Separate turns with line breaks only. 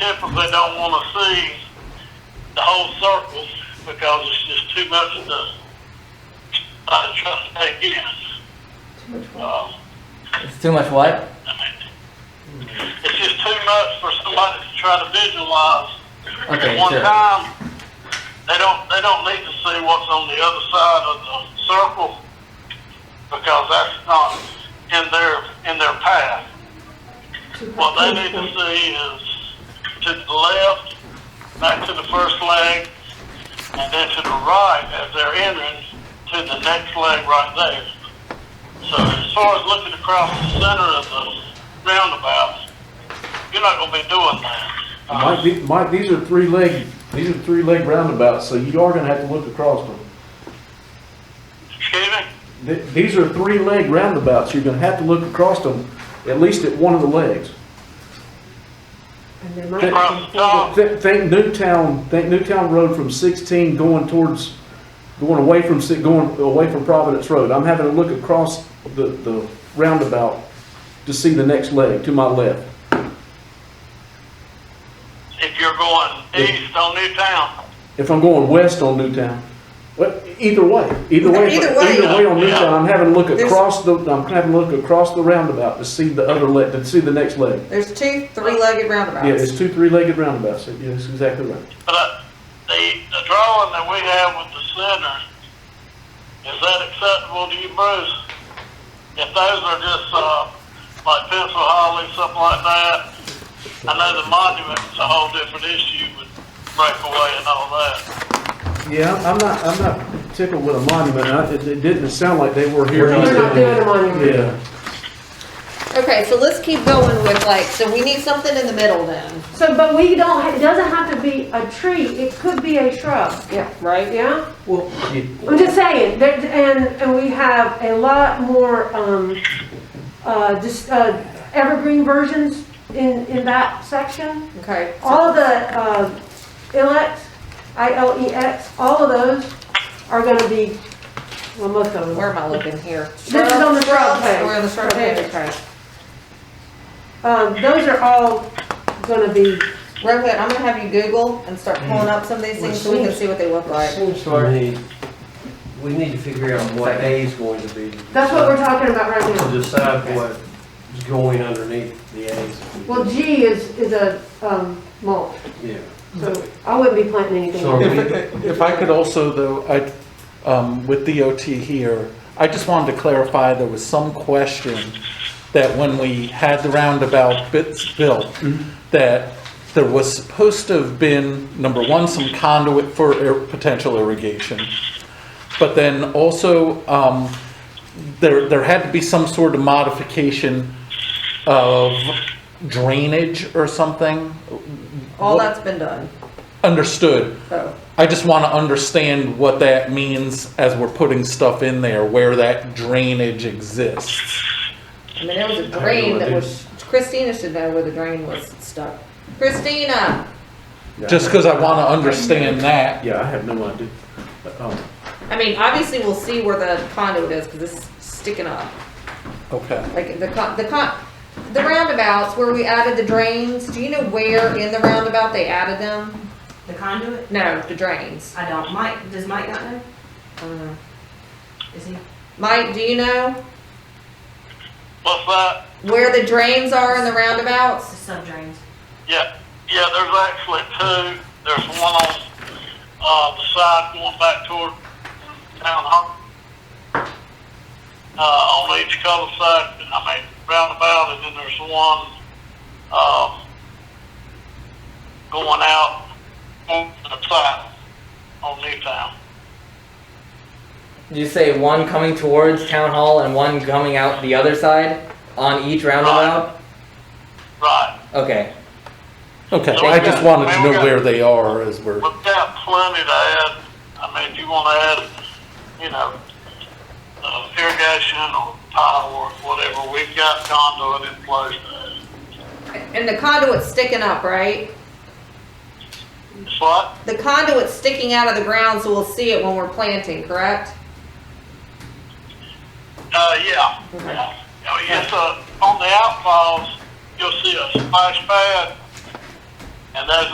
typically don't wanna see the whole circle because it's just too much to, uh, try to take in.
Too much work.
Um,
It's too much what?
it's just too much for somebody to try to visualize.
Okay,
At one
sure.
time, they don't, they don't need to see what's on the other side of the circle because that's not in their, in their path.
Too
What they need
hard.
to see is to the left, back to the first leg, and then to the right as they're entering to the next leg right there. So as far as looking across the center of the roundabout, you're not gonna be doing that.
Mike, the- Mike, these are three-leg, these are three-leg roundabouts, so you are gonna have to look across them.
Excuse me?
Th- These are three-leg roundabouts, you're gonna have to look across them, at least at one of the legs.
And they might
Th-
Across the top,
Th- Think Newtown, think Newtown Road from 16 going towards, going away from, si- going away from Providence Road. I'm having to look across the, the roundabout to see the next leg, to my left.
if you're going east on Newtown,
If I'm going west on Newtown, but either way, either way,
Either way.
either way on
Yeah.
Newtown, I'm having to look
There's-
across the, I'm having to look across the roundabout to see the other leg, to see the next leg.
There's two three-legged roundabouts.
Yeah, it's two three-legged roundabouts, yeah, that's exactly right.
but uh, the, the drawing that we have with the center, is that acceptable to you, Bruce? If those are just, uh, like pencil holly, something like that, I know the monument's a whole different issue with breakaway and all that.
Yeah, I'm not, I'm not tickled with a monument, I, it, it didn't sound like they were here.
We're not
We're not doing a monument.
Yeah,
Okay, so let's keep going with like, so we need something in the middle then.
So, but we don't, it doesn't have to be a tree, it could be a shrub,
Yeah. Right?
yeah?
yeah.
I'm just saying, there, and, and we have a lot more, um, uh, just, uh, evergreen versions in, in that section.
Okay. so-
All of the, uh, ilex, I-L-E-X, all of those are gonna be, well, most of them.
Where am I looking here?
This is on the shrub
Shrubs?
page.
We're on the shrub
Shrub
page,
page.
okay.
Um, those are all gonna be,
Rohit, I'm gonna have you Google and start pulling up some of these things so we can see what they look
It
like.
seems to our need, we need to figure out what A is going to be.
that's what we're talking about right now.
To decide what's going underneath the A's.
Well, G is, is a, um, mulch,
Yeah.
so I wouldn't be planting anything.
So-
If, if I could also, though, I, um, with DOT here, I just wanted to clarify, there was some question that when we had the roundabout bits built, that there was supposed to have been, number one, some conduit for ir- potential irrigation. But then also, um, there, there had to be some sort of modification of drainage or something.
All
What-
that's been done,
Understood.
so.
I just want to understand what that means as we're putting stuff in there, where that drainage exists.
I mean, there was a drain that was, Christina should know where the drain was stuck. Christina,
Just because I want to understand that.
Yeah, I have no idea. Um,
I mean, obviously we'll see where the conduit is, cause it's sticking up.
Okay.
Like the con, the con, the roundabouts where we added the drains, do you know where in the roundabout they added them?
The conduit?
No, the drains.
I don't. Mike, does Mike not know? Is he?
Mike, do you know
What's that?
where the drains are in the roundabouts?
It's sub drains.
Yeah, yeah, there's actually two. There's one on, uh, the side going back toward town hall. Uh, on each color side, I mean, roundabout, and then there's one, um, going out on the side on Newtown.
You say one coming towards town hall and one coming out the other side on each roundabout?
Right.
Okay.
Okay. I just wanted to know where they are as we're.
We've got plenty to add. I mean, if you want to add, you know, uh, irrigation or tile work, whatever, we've got conduit in place.
And the conduit's sticking up, right?
It's what?
The conduit's sticking out of the ground, so we'll see it when we're planting, correct?
Uh, yeah. Oh, I mean, it's uh on the outfalls, you'll see a splash pad And those